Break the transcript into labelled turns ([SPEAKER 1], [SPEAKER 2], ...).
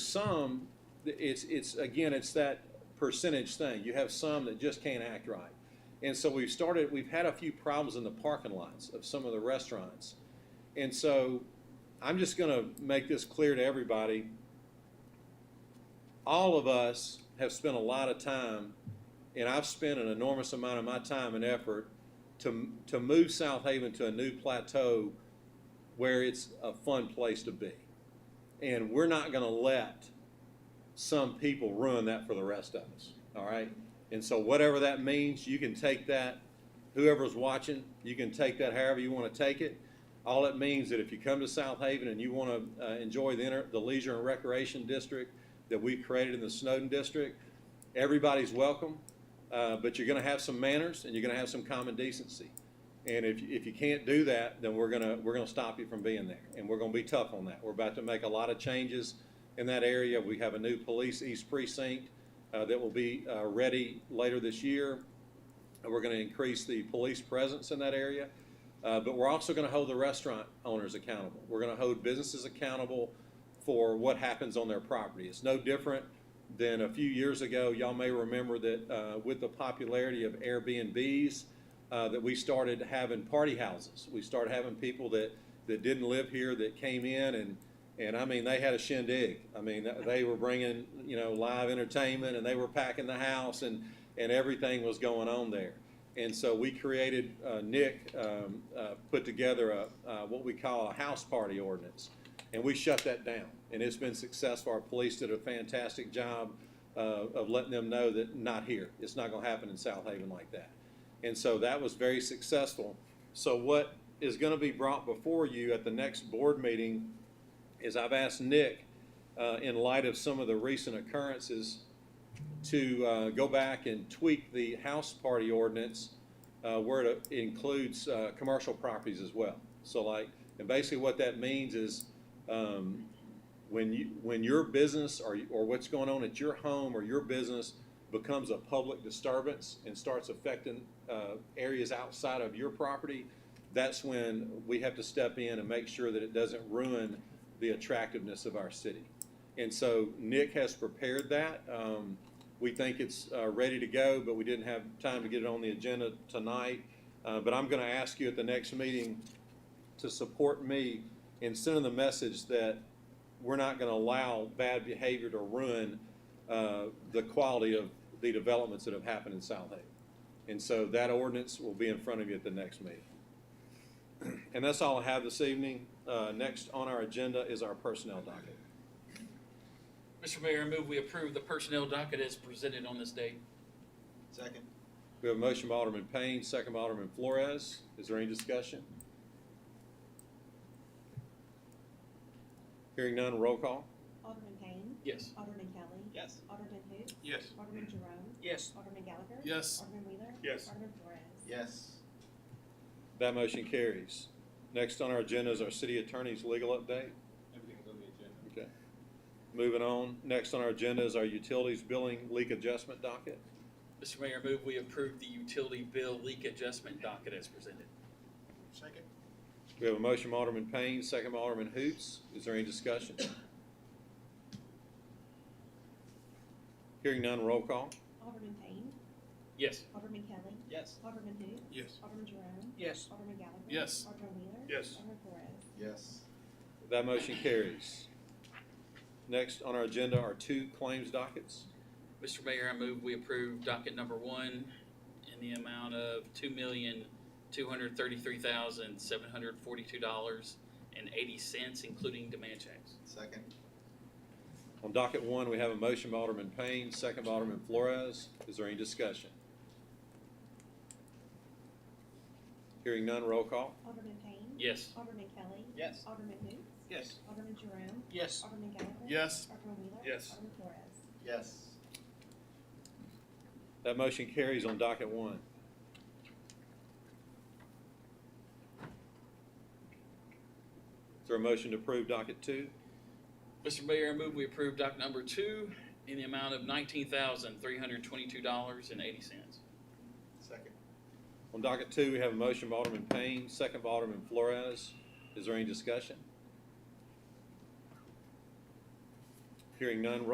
[SPEAKER 1] some, th- it's, it's, again, it's that percentage thing. You have some that just can't act right. And so we've started, we've had a few problems in the parking lots of some of the restaurants. And so I'm just gonna make this clear to everybody. All of us have spent a lot of time, and I've spent an enormous amount of my time and effort to, to move South Haven to a new plateau where it's a fun place to be. And we're not gonna let some people ruin that for the rest of us, all right? And so whatever that means, you can take that, whoever's watching, you can take that however you wanna take it. All it means that if you come to South Haven and you wanna, uh, enjoy the inter, the leisure and recreation district that we created in the Snowden District, everybody's welcome, uh, but you're gonna have some manners and you're gonna have some common decency. And if, if you can't do that, then we're gonna, we're gonna stop you from being there, and we're gonna be tough on that. We're about to make a lot of changes in that area. We have a new police east precinct, uh, that will be, uh, ready later this year. And we're gonna increase the police presence in that area. Uh, but we're also gonna hold the restaurant owners accountable. We're gonna hold businesses accountable for what happens on their property. It's no different than a few years ago. Y'all may remember that, uh, with the popularity of Airbnbs, uh, that we started having party houses. We started having people that, that didn't live here that came in and, and I mean, they had a shindig. I mean, th- they were bringing, you know, live entertainment and they were packing the house and, and everything was going on there. And so we created, uh, Nick, um, uh, put together a, uh, what we call a house party ordinance. And we shut that down and it's been successful. Our police did a fantastic job, uh, of letting them know that not here. It's not gonna happen in South Haven like that. And so that was very successful. So what is gonna be brought before you at the next board meeting is I've asked Nick, uh, in light of some of the recent occurrences, to, uh, go back and tweak the house party ordinance, uh, where it includes, uh, commercial properties as well. So like, and basically what that means is, um, when you, when your business or, or what's going on at your home or your business becomes a public disturbance and starts affecting, uh, areas outside of your property, that's when we have to step in and make sure that it doesn't ruin the attractiveness of our city. And so Nick has prepared that. Um, we think it's, uh, ready to go, but we didn't have time to get it on the agenda tonight. Uh, but I'm gonna ask you at the next meeting to support me in sending the message that we're not gonna allow bad behavior to ruin, uh, the quality of the developments that have happened in South Haven. And so that ordinance will be in front of you at the next meeting. And that's all I have this evening. Uh, next on our agenda is our personnel docket.
[SPEAKER 2] Mr. Mayor, I move we approve the personnel docket as presented on this date.
[SPEAKER 3] Second.
[SPEAKER 1] We have a motion by Alderman Payne, second by Alderman Flores. Is there any discussion? Hearing none, roll call.
[SPEAKER 4] Alderman Payne.
[SPEAKER 2] Yes.
[SPEAKER 4] Alderman Kelly.
[SPEAKER 3] Yes.
[SPEAKER 4] Alderman who?
[SPEAKER 5] Yes.
[SPEAKER 4] Alderman Jerome.
[SPEAKER 3] Yes.
[SPEAKER 4] Alderman Gallagher.
[SPEAKER 5] Yes.
[SPEAKER 4] Alderman Wheeler.
[SPEAKER 5] Yes.
[SPEAKER 4] Alderman Flores.
[SPEAKER 3] Yes.
[SPEAKER 1] That motion carries. Next on our agenda is our city attorney's legal update.
[SPEAKER 5] Everything's on the agenda.
[SPEAKER 1] Okay. Moving on, next on our agenda is our utilities billing leak adjustment docket.
[SPEAKER 2] Mr. Mayor, I move we approve the utility bill leak adjustment docket as presented.
[SPEAKER 3] Second.
[SPEAKER 1] We have a motion by Alderman Payne, second by Alderman Hoots. Is there any discussion? Hearing none, roll call.
[SPEAKER 4] Alderman Payne.
[SPEAKER 2] Yes.
[SPEAKER 4] Alderman Kelly.
[SPEAKER 3] Yes.
[SPEAKER 4] Alderman who?
[SPEAKER 5] Yes.
[SPEAKER 4] Alderman Jerome.
[SPEAKER 3] Yes.
[SPEAKER 4] Alderman Gallagher.
[SPEAKER 5] Yes.
[SPEAKER 4] Alderman Wheeler.
[SPEAKER 5] Yes.
[SPEAKER 4] Alderman Flores.
[SPEAKER 3] Yes.
[SPEAKER 1] That motion carries. Next on our agenda are two claims dockets.
[SPEAKER 2] Mr. Mayor, I move we approve docket number one in the amount of two million, two hundred thirty-three thousand, seven hundred forty-two dollars and eighty cents, including demand checks.
[SPEAKER 3] Second.
[SPEAKER 1] On docket one, we have a motion by Alderman Payne, second by Alderman Flores. Is there any discussion? Hearing none, roll call.
[SPEAKER 4] Alderman Payne.
[SPEAKER 2] Yes.
[SPEAKER 4] Alderman Kelly.
[SPEAKER 3] Yes.
[SPEAKER 4] Alderman who?
[SPEAKER 3] Yes.
[SPEAKER 4] Alderman Jerome.
[SPEAKER 3] Yes.
[SPEAKER 4] Alderman Gallagher.
[SPEAKER 5] Yes.
[SPEAKER 4] Alderman Wheeler.
[SPEAKER 5] Yes.
[SPEAKER 4] Alderman Flores.
[SPEAKER 3] Yes.
[SPEAKER 1] That motion carries on docket one. Is there a motion to approve docket two?
[SPEAKER 2] Mr. Mayor, I move we approve docket number two in the amount of nineteen thousand, three hundred twenty-two dollars and eighty cents.
[SPEAKER 3] Second.
[SPEAKER 1] On docket two, we have a motion by Alderman Payne, second by Alderman Flores. Is there any discussion? Hearing none, roll